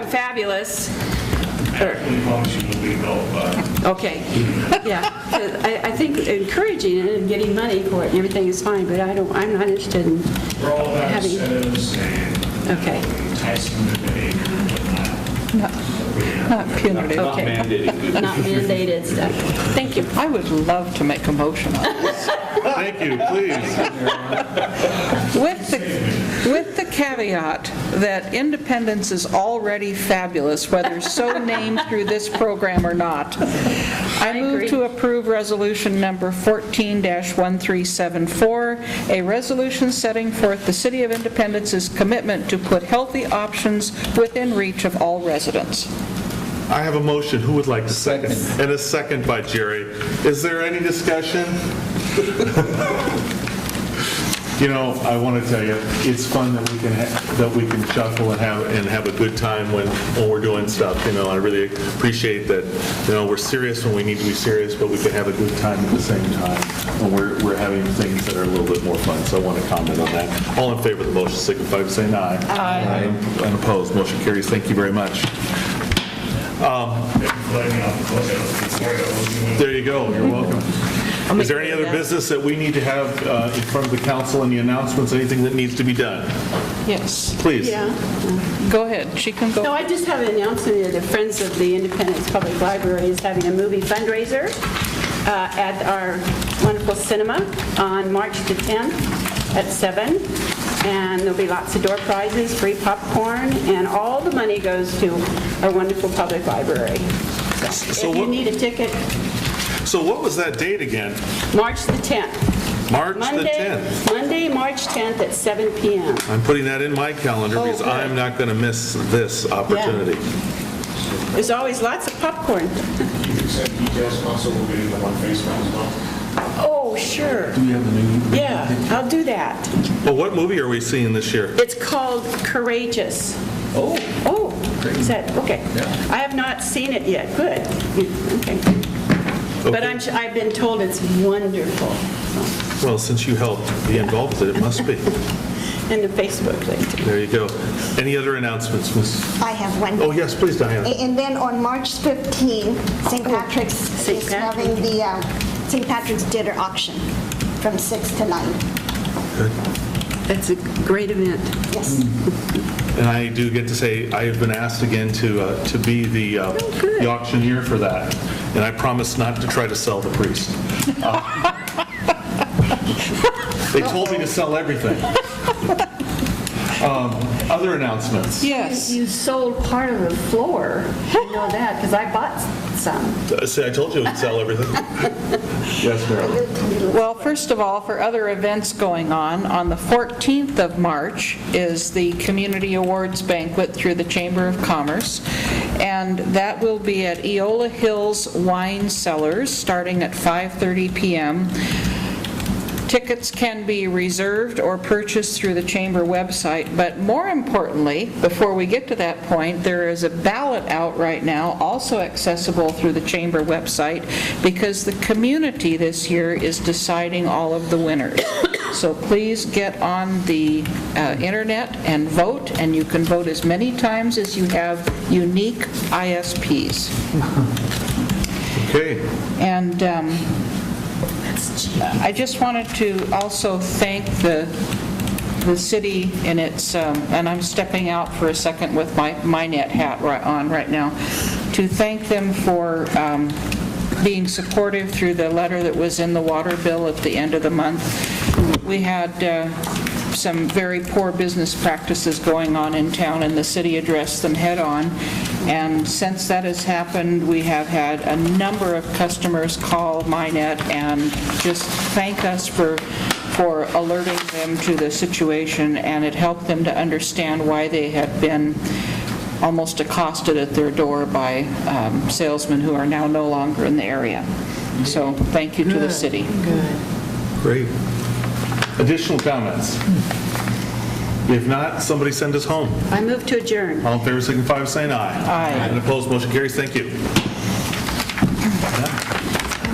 fabulous. Actually, function would be built, but Okay, yeah. I, I think encouraging it and getting money for it and everything is fine, but I don't, I'm not interested in, we're all about Having- incentives and okay, enticing the behavior and whatnot. Not punitive. Not okay. mandated. Not mandated stuff. Thank you. I would love to make a motion on it. Thank you, please. With the, with the caveat that independence is already fabulous, whether so named through this program or not. I agree. move to approve resolution number 14-1374, a resolution setting forth the City of Independence's commitment to put healthy options within reach of all residents. I have a motion. Who would like to second? And a second by Jerry. Is there any discussion? You know, I want to tell you, it's fun that we can, ha- that we can chuckle and have, and have a good time when, when we're doing stuff, you know, I really appreciate that, you know, we're serious when we need to be serious, but we can have a good time at the same time, and we're, we're having things that are a little bit more fun, so I want to comment on that. All in favor of the motion, signify by saying aye. Aye. And opposed, motion carries, thank you very much. Letting out the book before that was even There you go, you're welcome. Is there any other business that we need to have uh, in front of the council, any announcements, anything that needs to be done? Yes, Please. Yeah. go ahead, she can go. No, I just have an announcement that the Friends of the Independence Public Library is having a movie fundraiser uh, at our wonderful cinema on March the 10th at 7. And there'll be lots of door prizes, free popcorn, and all the money goes to our wonderful public library. So If you what- need a ticket, So what was that date again? March the 10th. March the Monday- 10th. Monday, March 10th at 7 PM. I'm putting that in my calendar Oh, because good. I'm not going to miss this opportunity. There's always lots of popcorn. You said details also will be in the one Facebook as well. Oh, sure. Do you have the menu? Yeah, I'll do that. Well, what movie are we seeing this year? It's called Courageous. Oh. Oh, is that, okay. I have not seen it yet, good. Okay. But Okay. I'm, su- I've been told it's wonderful Well, since you helped be involved with it, it must be. in the Facebook thing. There you go. Any other announcements, Miss? I have one. Oh, yes, please, A- Diana. And then on March 15, St. Patrick's St. is having the um, St. Patrick's Dinner Auction from 6 to 9. That's a great event. Yes. And I do get to say, I have been asked again to, uh, to be the uh, the auctioneer for that, and I promise not to try to sell the priest. Uh, They told me to sell everything. Um, Other announcements? Yes. You sold part of the floor, you know that, because I bought some. Uh, See, I told you we'd sell everything. Yes, Marilyn? Well, first of all, for other events going on, on the 14th of March is the Community Awards Banquet through the Chamber of Commerce, and that will be at Eola Hills Wine Cellars, starting at 5:30 PM. Tickets can be reserved or purchased through the chamber website, but more importantly, before we get to that point, there is a ballot out right now, also accessible through the chamber website, because the community this year is deciding all of the winners. So please get on the uh, internet and vote, and you can vote as many times as you have unique ISPs. Okay. And um, I just wanted to also thank the, the city in its, um, and I'm stepping out for a second with my, my net hat right on right now, to thank them for um, being supportive through the letter that was in the water bill at the end of the month. We had uh, some very poor business practices going on in town, and the city addressed them head-on. And since that has happened, we have had a number of customers call Minet and just thank us for, for alerting them to the situation, and it helped them to understand why they had been almost accosted at their door by um, salesmen who are now no longer in the area. So thank you to the city. Great. Additional comments? If not, somebody send us home. I move to adjourn. All in favor, signify by saying aye. Aye. And opposed, motion carries. Thank you.